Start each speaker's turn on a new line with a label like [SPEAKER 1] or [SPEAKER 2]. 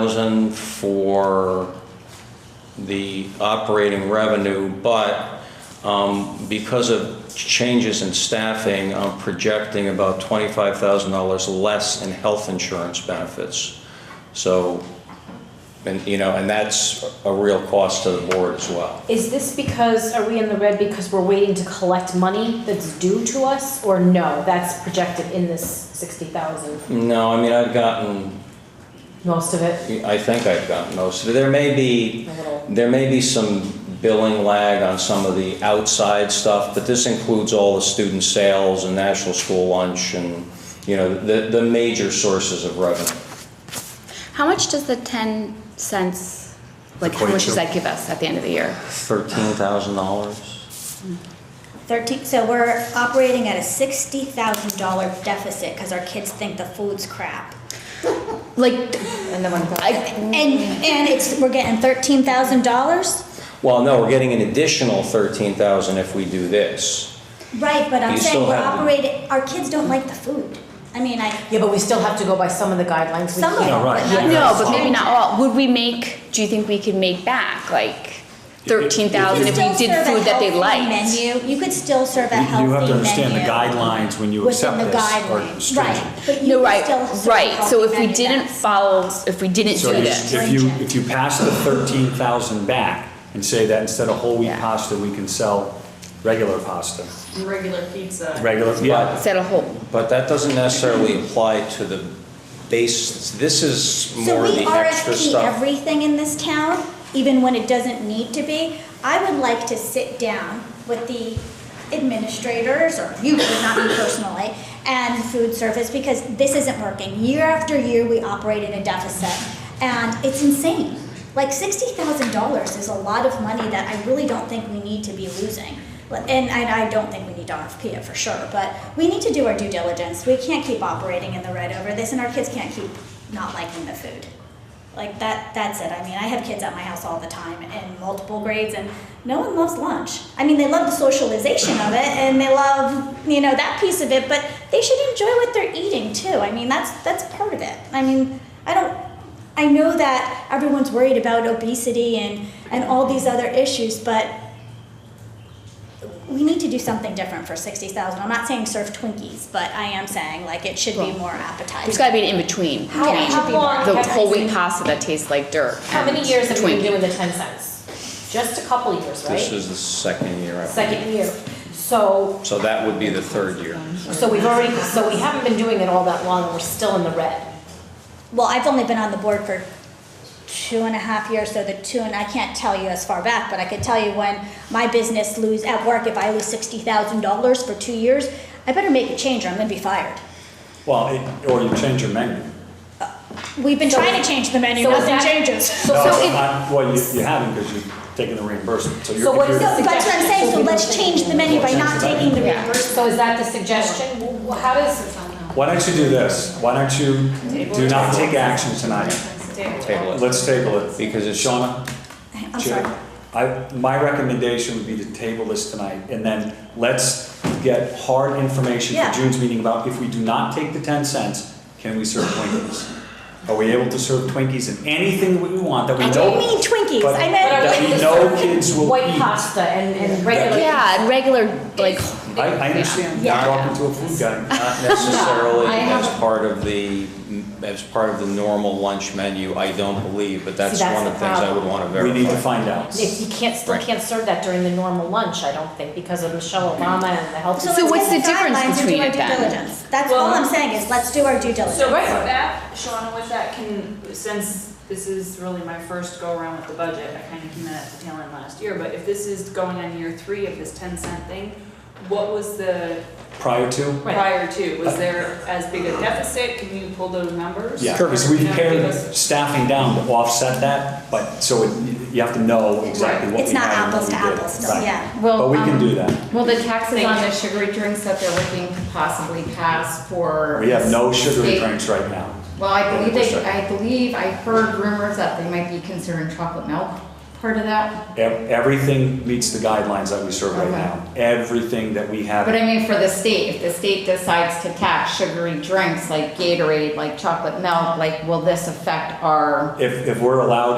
[SPEAKER 1] thousand for the operating revenue, but um, because of changes in staffing, I'm projecting about twenty-five thousand dollars less in health insurance benefits. So, and, you know, and that's a real cost to the board as well.
[SPEAKER 2] Is this because, are we in the red because we're waiting to collect money that's due to us, or no, that's projected in this sixty thousand,
[SPEAKER 1] No, I mean, I've gotten,
[SPEAKER 2] most of it,
[SPEAKER 1] I think I've gotten most of it. There may be,
[SPEAKER 2] a little,
[SPEAKER 1] There may be some billing lag on some of the outside stuff, but this includes all the student sales and national school lunch and, you know, the, the major sources of revenue.
[SPEAKER 3] How much does the 10 cents, like, how much does that give us at the end of the year?
[SPEAKER 1] Thirteen thousand dollars?
[SPEAKER 4] 13, so we're operating at a $60,000 deficit because our kids think the food's crap.
[SPEAKER 3] Like,
[SPEAKER 2] and then when.
[SPEAKER 3] I,
[SPEAKER 4] And,
[SPEAKER 3] Mm.
[SPEAKER 4] and it's, we're getting $13,000?
[SPEAKER 1] Well, no, we're getting an additional thirteen thousand if we do this.
[SPEAKER 4] Right, but I'm
[SPEAKER 1] You
[SPEAKER 4] saying
[SPEAKER 1] still
[SPEAKER 4] we're
[SPEAKER 1] have to-
[SPEAKER 4] operating, our kids don't like the food. I mean, I,
[SPEAKER 2] Yeah, but we still have to go by some of the guidelines we
[SPEAKER 4] some of it.
[SPEAKER 2] can't.
[SPEAKER 4] but not
[SPEAKER 3] no,
[SPEAKER 4] all.
[SPEAKER 3] but maybe not all. Would we make, do you think we could make back, like, 13,000
[SPEAKER 4] You
[SPEAKER 3] if
[SPEAKER 4] still
[SPEAKER 3] we did
[SPEAKER 4] serve a
[SPEAKER 3] food that they
[SPEAKER 4] healthy
[SPEAKER 3] liked?
[SPEAKER 4] Menu, you could still serve a
[SPEAKER 5] You
[SPEAKER 4] healthy
[SPEAKER 5] you
[SPEAKER 4] menu.
[SPEAKER 5] have to understand the guidelines when you accept this are
[SPEAKER 4] Within the guidelines,
[SPEAKER 5] stringent.
[SPEAKER 4] right, but you
[SPEAKER 3] No,
[SPEAKER 4] could
[SPEAKER 3] right,
[SPEAKER 4] still serve a
[SPEAKER 3] right. So if we
[SPEAKER 4] healthy menu
[SPEAKER 3] didn't
[SPEAKER 4] that's-
[SPEAKER 3] follow, if we didn't
[SPEAKER 5] So
[SPEAKER 3] do
[SPEAKER 5] you-
[SPEAKER 3] this,
[SPEAKER 5] if you,
[SPEAKER 4] Stringent.
[SPEAKER 5] if you pass the thirteen thousand back and say that instead of whole wheat
[SPEAKER 3] Yeah.
[SPEAKER 5] pasta, we can sell regular pasta,
[SPEAKER 6] regular pizza.
[SPEAKER 5] regular, yeah.
[SPEAKER 3] set a whole,
[SPEAKER 1] But that doesn't necessarily apply to the base, this is
[SPEAKER 4] So
[SPEAKER 1] more
[SPEAKER 4] we
[SPEAKER 1] the extra
[SPEAKER 4] RFP
[SPEAKER 1] stuff.
[SPEAKER 4] everything in this town, even when it doesn't need to be. I would like to sit down with the administrators, or you, not me personally, and food service, because this isn't working. Year after year, we operate in a deficit, and it's insane. Like sixty thousand dollars is a lot of money that I really don't think we need to be losing. But- And I, I don't think we need to RFP it for sure, but we need to do our due diligence. We can't keep operating in the red over this, and our kids can't keep not liking the food. Like that, that's it. I mean, I have kids at my house all the time in multiple grades, and no one loves lunch. I mean, they love the socialization of it, and they love you know that piece of it, but they should enjoy what they're eating too. I mean, that's that's part of it. I mean, I don't. I know that everyone's worried about obesity and and all these other issues, but we need to do something different for sixty thousand. I'm not saying serve Twinkies, but I am saying like it should be more appetizing.
[SPEAKER 3] there's gotta be an in-between.
[SPEAKER 2] How-
[SPEAKER 3] between
[SPEAKER 2] how long
[SPEAKER 3] The
[SPEAKER 2] have
[SPEAKER 3] whole
[SPEAKER 2] we
[SPEAKER 3] wheat
[SPEAKER 2] seen-
[SPEAKER 3] pasta that tastes like dirt.
[SPEAKER 2] How many
[SPEAKER 3] and
[SPEAKER 2] years have we been
[SPEAKER 3] Twinkies.
[SPEAKER 2] doing the ten cents? Just a couple years,
[SPEAKER 1] This
[SPEAKER 2] right?
[SPEAKER 1] is the second year. I-
[SPEAKER 2] Second year, so,
[SPEAKER 1] So that would be the third year.
[SPEAKER 2] so we've already, so we haven't been doing it all that long, and we're still in the red.
[SPEAKER 4] Well, I've only been on the board for two and a half years, so the two, and I can't tell you as far back, but I could tell you when my business lose, at work, if I lose sixty thousand dollars for two years, I better make a change or I'm gonna be fired.
[SPEAKER 5] Well, it- or you change your menu.
[SPEAKER 4] We've been trying to change the menu,
[SPEAKER 2] So is
[SPEAKER 4] nothing
[SPEAKER 2] that-
[SPEAKER 4] changes.
[SPEAKER 2] So,
[SPEAKER 5] No,
[SPEAKER 2] so if,
[SPEAKER 5] I- Well, you, you haven't because you're taking the reimbursement, so you're.
[SPEAKER 2] So what
[SPEAKER 5] you're-
[SPEAKER 2] is
[SPEAKER 4] So that's what I'm saying, so let's change the menu by not taking the
[SPEAKER 3] Yeah.
[SPEAKER 4] reimbursement.
[SPEAKER 2] so is that the suggestion? Wh- wh- How does,
[SPEAKER 5] Why don't you do this? Why don't you do not take action tonight?
[SPEAKER 1] Table it.
[SPEAKER 5] Let's table it.
[SPEAKER 1] Because it's-
[SPEAKER 5] Shauna,
[SPEAKER 4] I'm
[SPEAKER 5] Chair,
[SPEAKER 4] sorry.
[SPEAKER 5] I, my recommendation would be to table this tonight, and then let's get hard information
[SPEAKER 4] Yeah.
[SPEAKER 5] for June's meeting about if we do not take the ten cents, can we serve Twinkies? Are we able to serve Twinkies and anything that we want that we
[SPEAKER 4] I
[SPEAKER 5] know?
[SPEAKER 4] didn't mean Twinkies,
[SPEAKER 5] but-
[SPEAKER 4] I
[SPEAKER 2] But
[SPEAKER 4] meant,
[SPEAKER 2] are
[SPEAKER 5] That
[SPEAKER 2] we
[SPEAKER 5] we
[SPEAKER 2] just
[SPEAKER 5] know
[SPEAKER 2] serving
[SPEAKER 5] kids will
[SPEAKER 2] White
[SPEAKER 5] eat.
[SPEAKER 2] pasta and, and regular.
[SPEAKER 3] Yeah, and regular, like.
[SPEAKER 5] I, I understand, you're
[SPEAKER 3] Yeah.
[SPEAKER 5] talking to a food guy.
[SPEAKER 1] Not necessarily
[SPEAKER 2] No, I
[SPEAKER 1] as
[SPEAKER 2] haven't.
[SPEAKER 1] part of the, as part of the normal lunch menu, I don't believe, but that's
[SPEAKER 2] See, that's
[SPEAKER 1] one of
[SPEAKER 2] the
[SPEAKER 1] the things I would
[SPEAKER 2] problem.
[SPEAKER 1] want to
[SPEAKER 5] We
[SPEAKER 1] verify.
[SPEAKER 5] need to find out.
[SPEAKER 2] If you can't, still
[SPEAKER 1] Right.
[SPEAKER 2] can't serve that during the normal lunch, I don't think, because of Michelle Obama and the health.
[SPEAKER 4] so let's
[SPEAKER 3] So what's
[SPEAKER 4] get
[SPEAKER 3] the difference
[SPEAKER 4] guidelines and do
[SPEAKER 3] between
[SPEAKER 4] our
[SPEAKER 3] it
[SPEAKER 4] due
[SPEAKER 3] then?
[SPEAKER 4] diligence. That's all I'm saying is, let's do our due diligence.
[SPEAKER 6] So with that, Shauna, with that, can, since this is really my first go around with the budget, I kind of came in at the tail end last year, but if this is going on year three of this ten cent thing, what was the
[SPEAKER 5] Prior to,
[SPEAKER 6] prior to? Was there as big a deficit? Can you pull those numbers?
[SPEAKER 5] yeah, because
[SPEAKER 6] Or,
[SPEAKER 5] we've
[SPEAKER 6] you know,
[SPEAKER 5] pared
[SPEAKER 6] because-
[SPEAKER 5] staffing down to offset that, but, so it- you have to know exactly what we
[SPEAKER 4] It's not
[SPEAKER 5] had and what
[SPEAKER 4] apples
[SPEAKER 5] we
[SPEAKER 4] to
[SPEAKER 5] did.
[SPEAKER 4] apples, no,
[SPEAKER 5] Right.
[SPEAKER 4] yeah.
[SPEAKER 7] Well,
[SPEAKER 5] But we can
[SPEAKER 7] um,
[SPEAKER 5] do that.
[SPEAKER 7] Well, the taxes
[SPEAKER 6] Thank
[SPEAKER 7] on
[SPEAKER 6] you.
[SPEAKER 7] the sugary drinks that they're looking to possibly pass for.
[SPEAKER 5] We have no sugary
[SPEAKER 7] state-
[SPEAKER 5] drinks right now.
[SPEAKER 7] Well, I believe they,
[SPEAKER 5] Percent.
[SPEAKER 7] I believe, I heard rumors that they might be considering chocolate milk
[SPEAKER 3] part of that?
[SPEAKER 5] Ev- Everything meets the guidelines that we serve right
[SPEAKER 3] Okay.
[SPEAKER 5] now. Everything that we have.
[SPEAKER 3] But I mean, for the state, if the state decides to tax sugary drinks like Gatorade, like chocolate milk, like, will this affect our?
[SPEAKER 5] If, if we're allowed